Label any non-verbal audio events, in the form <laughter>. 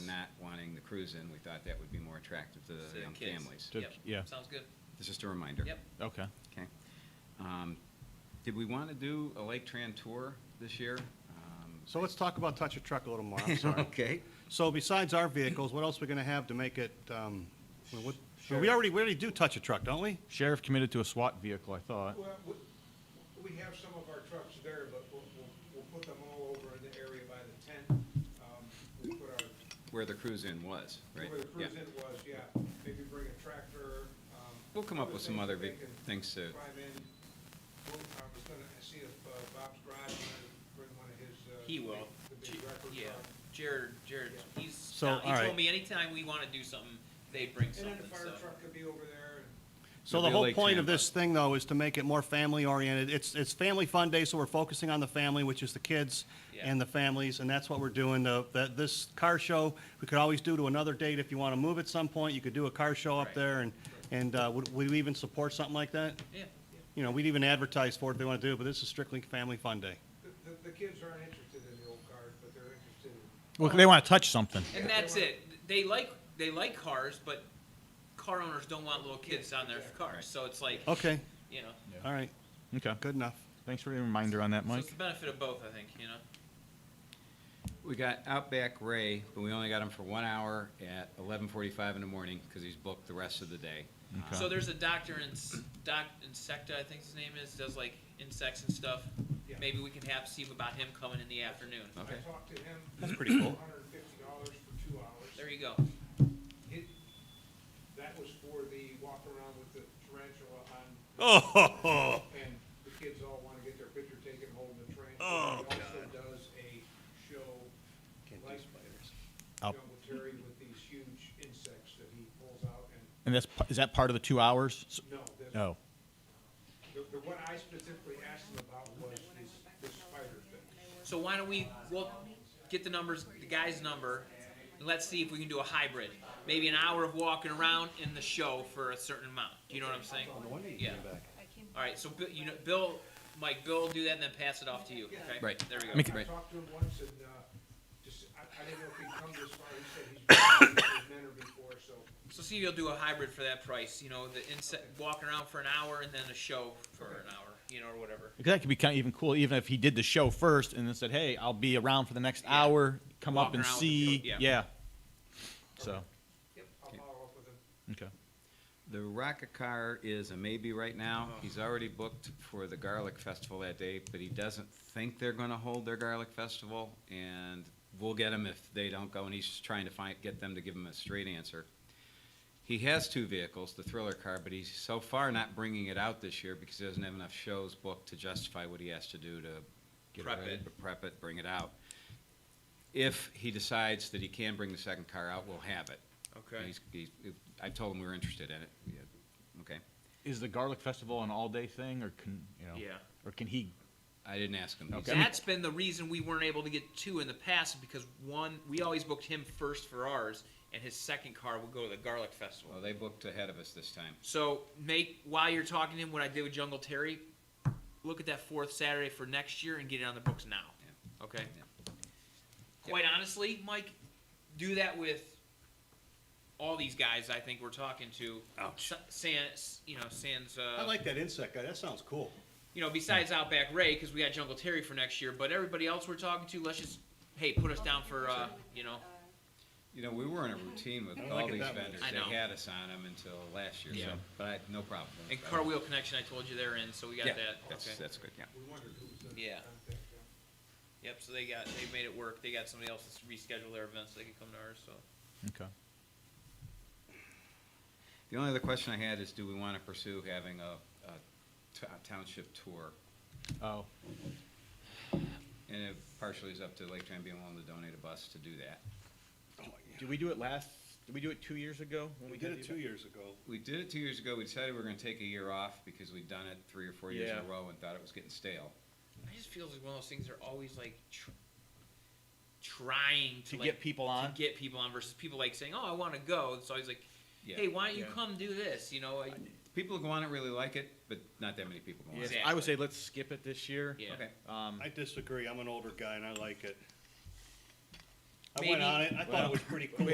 cruise in, we thought that would be more attractive to So the young kids. families. To- Yep. yeah. Sounds good. It's just a reminder. Yep. Okay. Okay. Um, Did we want to do a Lake Tran tour this <laughs> year? Um, So let's talk about Touch a Truck a little more, I'm sorry. Okay. So besides our vehicles, what else are we gonna have to make it, um, well, what, we already, we already do Touch a Truck, don't we? Sheriff committed to a SWAT vehicle, I thought. Well, we, we have some of our trucks there, but we'll, we'll, we'll put them all over in the area by the tent. Um, We'll put our, Where the cruise in was, right? where the Yeah. cruise in was, yeah, maybe bring a tractor, um. We'll come up other with some things other that they big can things to, Climb in. Well, I was gonna see if uh, Bob's garage wanted to bring one of his, uh. He will. The J- big record Yeah, truck. Jared, Jared, he's, So, down- he all told right. me anytime we wanna do something, they bring And then the something, fire so. truck could be over there and So The the real whole Lake point of Tran this thing, though, is to make it more family-oriented. It's, it's Family Fun Day, so we're focusing on the family, which is the kids Yeah. and the families, and that's what we're doing. The, that, this car show, we could always do to another date. If you want to move at some point, you could do a car show up Right. there, and, and, uh, would, would we even support something like that? Yeah, You know, we'd even advertise for it if they want to do it, but this is strictly Family Fun Day. the, the, the kids aren't interested in the old cars, but they're interested in Well, they want to touch something. and Yeah, they that's wanna- it, they like, they like cars, but car owners don't want little kids on their cars, so it's like, Okay, you know. all right, Okay. good enough. Thanks for the reminder on that, So Mike. it's the benefit of both, I think, you know? we got Outback Ray, but we only got him for one hour at eleven forty-five in the morning because he's booked the rest of the day. Okay. So there's a doctor in S- Doc Insecta, I think his name is, does like insects and stuff. Yeah. Maybe we can have see about him coming in the afternoon. Okay. I talked to him. That's pretty cool. Hundred and fifty dollars for two hours. There you go. It, that was for the walk around with the tarantula on. Oh, And the kids all wanna get their picture taken holding the tarantula. Oh, God. He also does a show like Up. Jungle Terry with these huge insects that he pulls out and, And that's p- is that part of the two hours? S- no, the, No. the, the one I specifically asked him about was this, this spider thing. So why don't we, we'll get the numbers, the guy's number, and let's see if we can do a hybrid. Maybe an hour of walking around in the show for a certain amount. Do you know what I'm saying? Yeah. All right, so Bill, you know, Bill, Mike, Bill, do that and then pass it off to you, okay? Right. There we go. Make- I Right. talked to him once and, uh, just, I, I didn't know if he'd come this far, he said he's been <coughs> to his mentor before, so. So see, if you'll do a hybrid for that price, you know, the inset, walking around for an hour and then a show for an hour, you know, or whatever. Because that could be kind of even cool, even if he did the show first and then said, "Hey, I'll be around for the next hour. Come up Walking and around with see." the- yeah. So Yep. I'll follow up with him. okay. The Rock-A-Car is a maybe right now. Oh. He's already booked for the Garlic Festival that day, but he doesn't think they're gonna hold their Garlic Festival, and we'll get him if they don't go, and he's just trying to find, get them to give him a straight answer. He has two vehicles, the Thriller car, but he's so far not bringing it out this year because he doesn't have enough shows booked to justify what he has to do to get Prep ready, it. to Prep it, bring it out. If he decides that he can bring the second car out, we'll have it. He's, he's, I told him we were interested in it. Yeah, Okay. Is the garlic festival an all-day thing, or can you know? Yeah. Or can he? I didn't ask him. He Okay. said- That's been the reason we weren't able to get two in the past because one, we always booked him first for ours, and his second car would go to the Garlic Festival. Well, they booked ahead of us this time. So make while you're talking to him, what I did with Jungle Terry, look at that fourth Saturday for next year and get it on the books now. Okay. Yeah. Quite honestly, Mike, do that with all these guys. I think we're talking to. Ouch. Sans, you know, Sans. Uh, I like that insect guy, that sounds cool. you know, besides Outback Ray, because we got Jungle Terry for next year, but everybody else we're talking to, let's just, hey, put us down for, uh, you know, You know, we were in a routine with I don't all like it these that much. vendors. I know. They had us on them until last year, Yeah. so, but I, no problem. and Cartwheel Connection, I told you they're in, so we got Yeah, that. that's, Okay. that's good, yeah. We wondered who was the Yeah. contact, yeah. Yep, so they got, they made it work. They got somebody else that's rescheduled their events, so they can come to ours, so. Okay. The only other question I had is, do we want to pursue having a, a t- a township tour? Oh. And it partially is up to Lake Tran being willing to donate a bus to do that. Did we do it last? Did we do it two years ago? When We did it two years ago. We did it two years ago. We decided we were going to take a year off because we'd done it three or four years in a Yeah. row and thought it was getting stale. I just feel like one of those things are always like tr- trying to, To like, get people on? to get people on versus people like saying, oh, I want to go. It's always like, Yeah. hey, why don't you Yeah. come do this? You know, I, People who go on it really like it, but not that many people go on it. Yeah. I would say let's skip it this year. yeah. Okay. Um, I disagree, I'm an older guy and I like it. I Maybe- went on it, I thought it was pretty cool.